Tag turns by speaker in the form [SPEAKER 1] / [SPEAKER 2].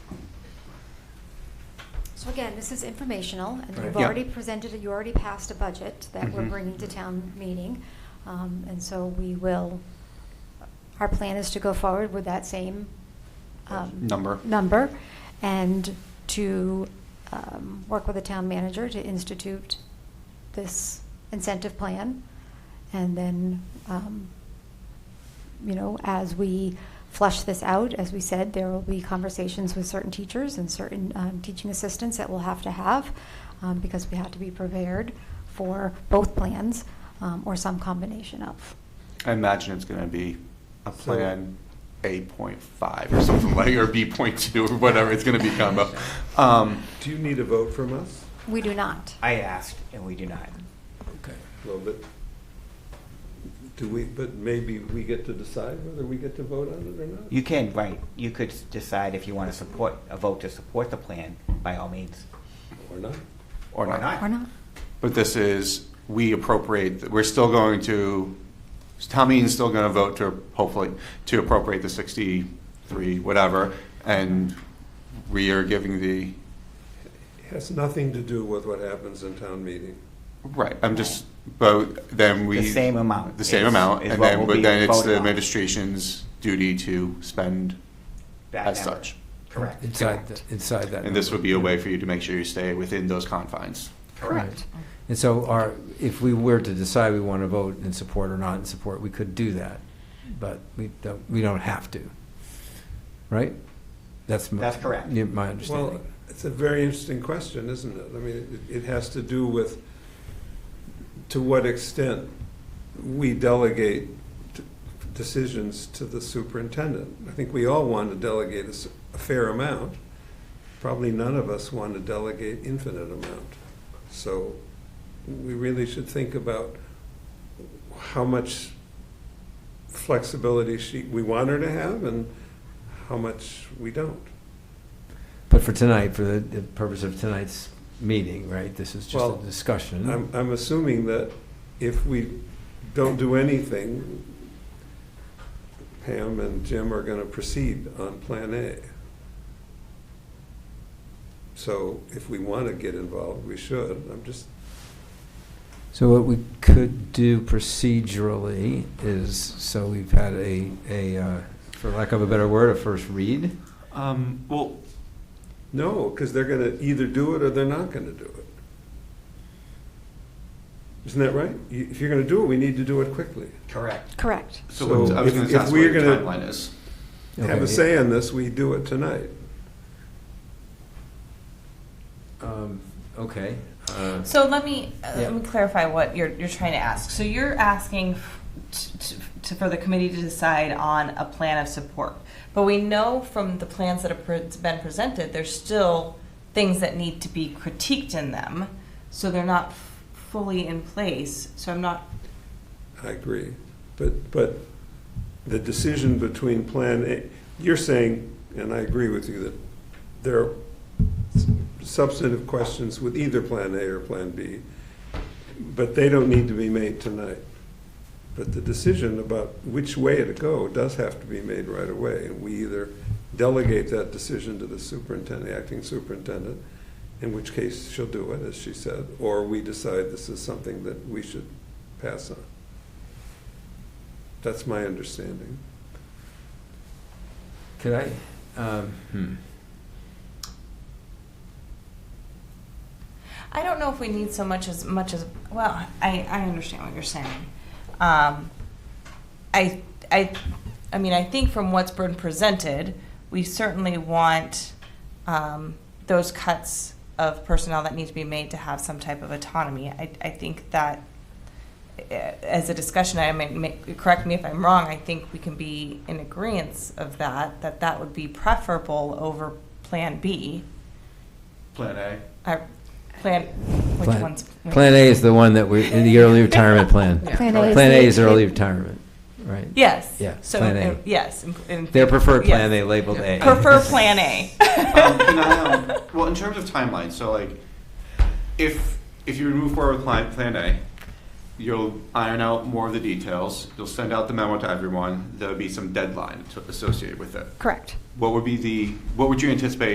[SPEAKER 1] So again, this is informational, and
[SPEAKER 2] Right.
[SPEAKER 1] you've
[SPEAKER 2] Yeah.
[SPEAKER 1] already presented, it. you already passed a budget that we're
[SPEAKER 2] Mhm.
[SPEAKER 1] bringing to town meeting. Um, And so we will, our plan is to go forward with that same. um,
[SPEAKER 2] Number.
[SPEAKER 1] Number, and to um, work with the town manager to institute this incentive plan. And then, um, you know, as we flush this out, as we said, there will be conversations with certain teachers and certain um, teaching assistants that we'll have to have um, because we have to be prepared for both plans um, or some combination of.
[SPEAKER 2] I imagine it's gonna be a
[SPEAKER 3] So-
[SPEAKER 2] plan A point five or something like, or B point two or whatever, it's gonna be combo. Um,
[SPEAKER 3] Do you need a vote from us?
[SPEAKER 1] We do not.
[SPEAKER 4] I asked, and we do not.
[SPEAKER 3] Okay. Well, but, do we, but maybe we get to decide whether we get to vote on it or not?
[SPEAKER 4] You can, right, you could s- decide if you want to support, a vote to support the plan, by all means.
[SPEAKER 3] Or not?
[SPEAKER 2] Or
[SPEAKER 4] Or
[SPEAKER 2] not.
[SPEAKER 4] not.
[SPEAKER 1] Or not.
[SPEAKER 2] But this is, we appropriate, we're still going to, town meeting's still gonna vote to, hopefully, to appropriate the sixty-three, whatever, and we are giving the,
[SPEAKER 3] It Has nothing to do with what happens in town meeting.
[SPEAKER 2] right, I'm just, but then we.
[SPEAKER 4] The same amount
[SPEAKER 2] The same
[SPEAKER 4] is-
[SPEAKER 2] amount,
[SPEAKER 4] is
[SPEAKER 2] and
[SPEAKER 4] what
[SPEAKER 2] then,
[SPEAKER 4] will
[SPEAKER 2] but
[SPEAKER 4] be
[SPEAKER 2] then it's the
[SPEAKER 4] voted on.
[SPEAKER 2] administration's duty to spend
[SPEAKER 4] That
[SPEAKER 2] as
[SPEAKER 4] number.
[SPEAKER 2] such.
[SPEAKER 4] Correct.
[SPEAKER 5] Inside, the- inside that.
[SPEAKER 2] And this
[SPEAKER 5] number.
[SPEAKER 2] would be a way for you to make sure you stay within those confines.
[SPEAKER 1] Correct.
[SPEAKER 5] And so our, if we were to decide we want to vote in support or not in support, we could do that, but we don't, we don't have to, right? That's. my-
[SPEAKER 4] That's correct.
[SPEAKER 5] yeah, My
[SPEAKER 3] Well,
[SPEAKER 5] understanding.
[SPEAKER 3] it's a very interesting question, isn't it? I mean, it it has to do with to what extent we delegate t- decisions to the superintendent. I think we all want to delegate a s- a fair amount. Probably none of us want to delegate infinite amount. So we really should think about how much flexibility she, we want her to have and how much we don't.
[SPEAKER 5] But for tonight, for the- the purpose of tonight's meeting, right, this is just
[SPEAKER 3] Well,
[SPEAKER 5] a discussion.
[SPEAKER 3] I'm, I'm assuming that if we don't do anything, Pam and Jim are gonna proceed on Plan A. So if we wanna get involved, we should. I'm just,
[SPEAKER 5] So what we could do procedurally is, so we've had a, a, uh, for lack of a better word, a first read.
[SPEAKER 2] Um, well.
[SPEAKER 3] no, because they're gonna either do it or they're not gonna do it. Isn't that right? You- If you're gonna do it, we need to do it quickly.
[SPEAKER 4] Correct.
[SPEAKER 1] Correct.
[SPEAKER 2] So what- I was
[SPEAKER 3] So
[SPEAKER 2] gonna
[SPEAKER 3] if- if
[SPEAKER 2] ask what your
[SPEAKER 3] we're gonna-
[SPEAKER 2] timeline is.
[SPEAKER 3] Have a
[SPEAKER 5] Okay.
[SPEAKER 3] say on this, we do it tonight.
[SPEAKER 5] Um, Okay. Uh,
[SPEAKER 6] So let me, uh,
[SPEAKER 5] Yeah.
[SPEAKER 6] let me clarify what you're, you're trying to ask. So you're asking f- t- t- to, for the committee to decide on a plan of support. But we know from the plans that have pre- been presented, there's still things that need to be critiqued in them. So they're not f- fully in place. So I'm not,
[SPEAKER 3] I agree, but, but the decision between Plan A, you're saying, and I agree with you, that there are substantive questions with either Plan A or Plan B, but they don't need to be made tonight. But the decision about which way to go does have to be made right away, and we either delegate that decision to the superintendent, acting superintendent, in which case she'll do it, as she said, or we decide this is something that we should pass on. That's my understanding.
[SPEAKER 5] Could I? Um, hmm.
[SPEAKER 6] I don't know if we need so much as much as, well, I, I understand what you're saying. Um, I, I, I mean, I think from what's been presented, we certainly want um, those cuts of personnel that need to be made to have some type of autonomy. I, I think that eh, as a discussion, I may, may- correct me if I'm wrong, I think we can be in agreement of that, that that would be preferable over Plan B.
[SPEAKER 2] Plan A.
[SPEAKER 6] Uh, Plan, which
[SPEAKER 5] Plan-
[SPEAKER 6] one's? which-
[SPEAKER 5] Plan A is the one that we, in the early retirement plan.
[SPEAKER 1] Plan A is
[SPEAKER 5] Plan A
[SPEAKER 1] the-
[SPEAKER 5] is early retirement, right?
[SPEAKER 6] Yes.
[SPEAKER 5] Yeah,
[SPEAKER 6] So,
[SPEAKER 5] Plan A.
[SPEAKER 6] uh, yes. in- in-
[SPEAKER 5] Their preferred plan,
[SPEAKER 6] yes.
[SPEAKER 5] they labeled A.
[SPEAKER 6] Prefer Plan A.
[SPEAKER 2] um, can I, um, well, in terms of timeline, so like, if if you move forward with plan, plan A, you'll iron out more of the details. You'll send out the memo to everyone. There'll be some deadline to, associated with it.
[SPEAKER 1] Correct.
[SPEAKER 2] What would be the what would you anticipate